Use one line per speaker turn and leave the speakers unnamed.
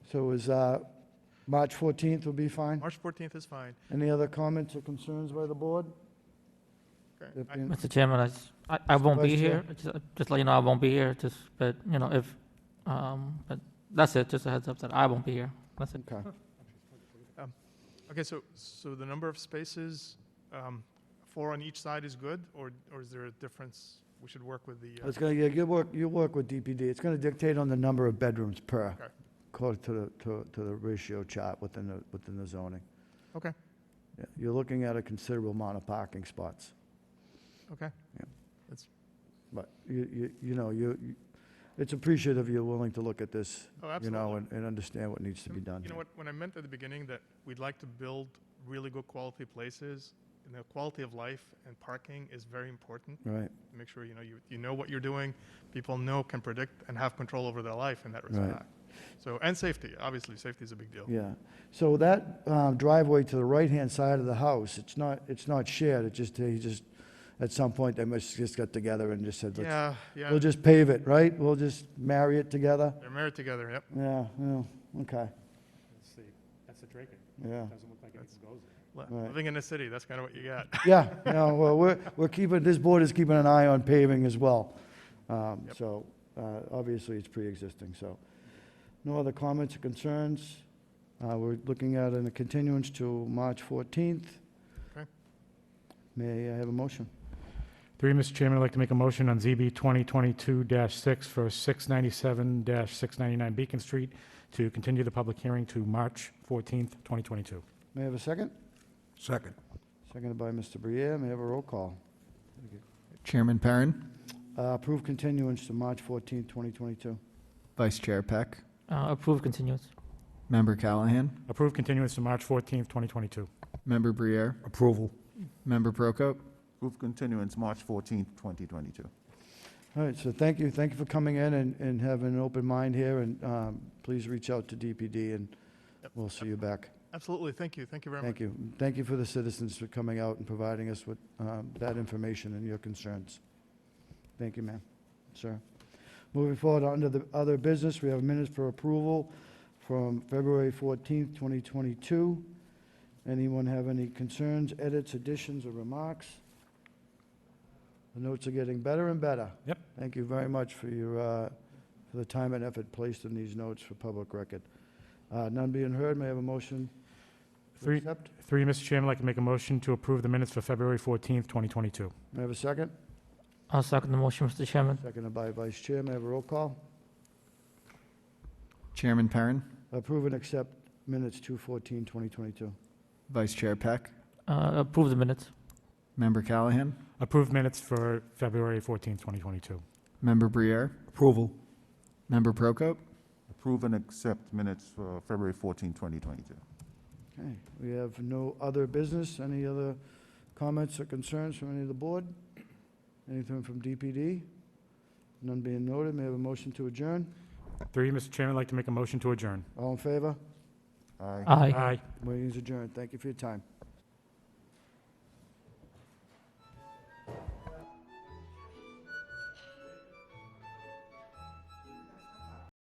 So is, uh, March 14th will be fine?
March 14th is fine.
Any other comments or concerns by the board?
Okay.
That
I-
being-
Mr. Chairman, I s- I, I won't be
Vice Chair.
here, just, just let you know I won't be here, just, but, you know, if, um, but that's it, just a heads up that I won't be here, that's it.
Okay.
Okay, so, so the number of spaces, um, four on each side is good, or, or is there a difference? We should work with the, uh,
It's gonna, yeah, you work, you work with DPD. It's gonna dictate on the number of bedrooms per,
Okay.
according to the, to, to the ratio chart within the, within the zoning.
Okay.
Yeah, You're looking at a considerable amount of parking spots,
okay,
but you, you, you know, you, you- it's appreciative you're willing to look at this,
oh,
you
absolutely.
know, and, and understand what needs to be
Um,
done.
You know
here.
what, when I meant at the beginning that we'd like to build really good quality places, and the quality of life and parking is very important.
Right,
Make sure, you know, you, you know what you're doing, people know, can predict, and have control over their life in that
Right.
respect. So, and safety, obviously, safety is a big deal.
yeah. So that um, driveway to the right-hand side of the house, it's not, it's not shared, it just, they just, at some point, they must just got together and just said, let's
Yeah, yeah,
We'll just pave it, right? We'll just marry it together?
they're married together, yep.
Yeah, yeah, okay,
Let's see, that's a Draken,
yeah.
doesn't look like it
That's-
even goes there.
Li-
Right.
Living in the city, that's kind of what you got.
Yeah, no, well, we're, we're keeping, this board is keeping an eye on paving as well. Um,
Yep.
So, uh, obviously, it's pre-existing, so. No other comments or concerns? Uh, We're looking at a continuance to March 14th.
Okay.
May I have a motion?
Three, Mr. Chairman, I'd like to make a motion on ZB 2022-6 for 697-699 Beacon Street to continue the public hearing to March 14th, 2022.
May I have a second?
Second.
Seconded by Mr. Briere, may I have a roll call?
Chairman Perrin,
Uh, Approve continuance to March 14th, 2022.
Vice Chair Peck,
Uh, approve continuance.
Member Callahan,
Approve continuance to March 14th, 2022.
Member Briere,
Approval.
Member Prokop,
Move continuance, March 14th, 2022.
All right, so thank you, thank you for coming in and, and having an open mind here, and um, please reach out to DPD, and
Yep,
we'll see you back.
Absolutely, thank you, thank you very much.
Thank you. Thank you for the citizens for coming out and providing us with um, that information and your concerns. Thank you, ma'am, sir. Moving forward, under the other business, we have minutes for approval from February 14th, 2022. Anyone have any concerns, edits, additions, or remarks? The notes are getting better and better.
Yep.
Thank you very much for your, uh, for the time and effort placed in these notes for public record. Uh, None being heard, may I have a motion to
Three,
accept?
three, Mr. Chairman, I'd like to make a motion to approve the minutes for February 14th, 2022.
May I have a second?
I'll second the motion, Mr. Chairman.
Seconded by Vice Chair. May I have a roll call?
Chairman Perrin,
Approve and accept minutes 214, 2022.
Vice Chair Peck,
Uh, approve the minutes.
Member Callahan,
Approve minutes for February 14th, 2022.
Member Briere,
Approval.
Member Prokop,
Approve and accept minutes for February 14th, 2022.
Okay, we have no other business. Any other comments or concerns from any of the board? Anything from DPD? None being noted. May I have a motion to adjourn?
Three, Mr. Chairman, I'd like to make a motion to adjourn.
All in favor?
Aye.
Aye.
Aye.
Meeting is adjourned. Thank you for your time.